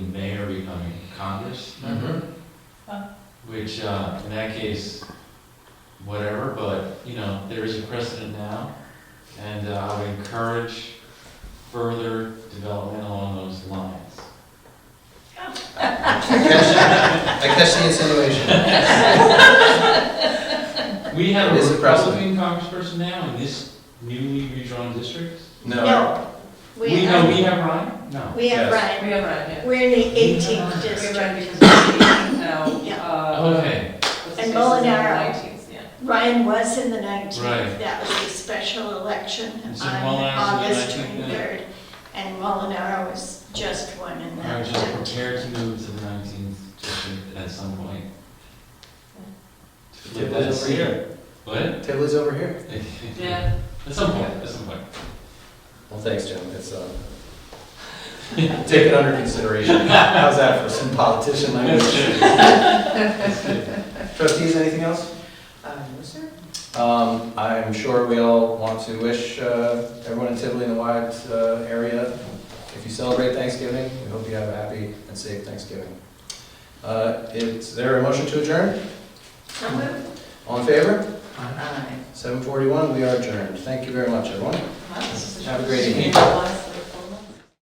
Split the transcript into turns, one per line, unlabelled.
Congress
Mm-hmm.
member,
Huh.
which, uh, in that case, whatever, but, you know, there is a precedent now, and uh, I would encourage further development along those lines.
I catch- I catch the insinuation.
We have
It is
a
a precedent.
Republican congressperson now in this newly redrawn district.
No,
We, no, we have Ryan? No.
we have
Yes.
Ryan.
We have Ryan, yeah.
We're in the 18th
We have
district.
Ryan because we're eighteen now.
Yeah.
Oh,
uh,
Okay,
what's his
And
face is in the
Molinaro.
19th, yeah.
Ryan was in the 19th.
Right.
That was a special election
And so
on
Molinaro was in
August
the 19th, yeah.
23rd. And Molinaro was just one in
I
that.
was just prepared to move to the nineteenth district at some point.
The Table is over here.
What?
The Table is over here.
Yeah,
At some point, at some point.
Well, thanks, Jim. It's, uh, take it under consideration. How's that for some politician language? Trustees, anything else?
um, sir.
Um, I'm sure we all want to wish, uh, everyone in Tivoli and the wide, uh, area, if you celebrate Thanksgiving, we hope you have a happy and safe Thanksgiving. Uh, is there a motion to adjourn?
So moved.
All in favor?
Aye.
Seven forty-one, we are adjourned. Thank you very much, everyone.
Wow, this is
Have a great evening.
Bless.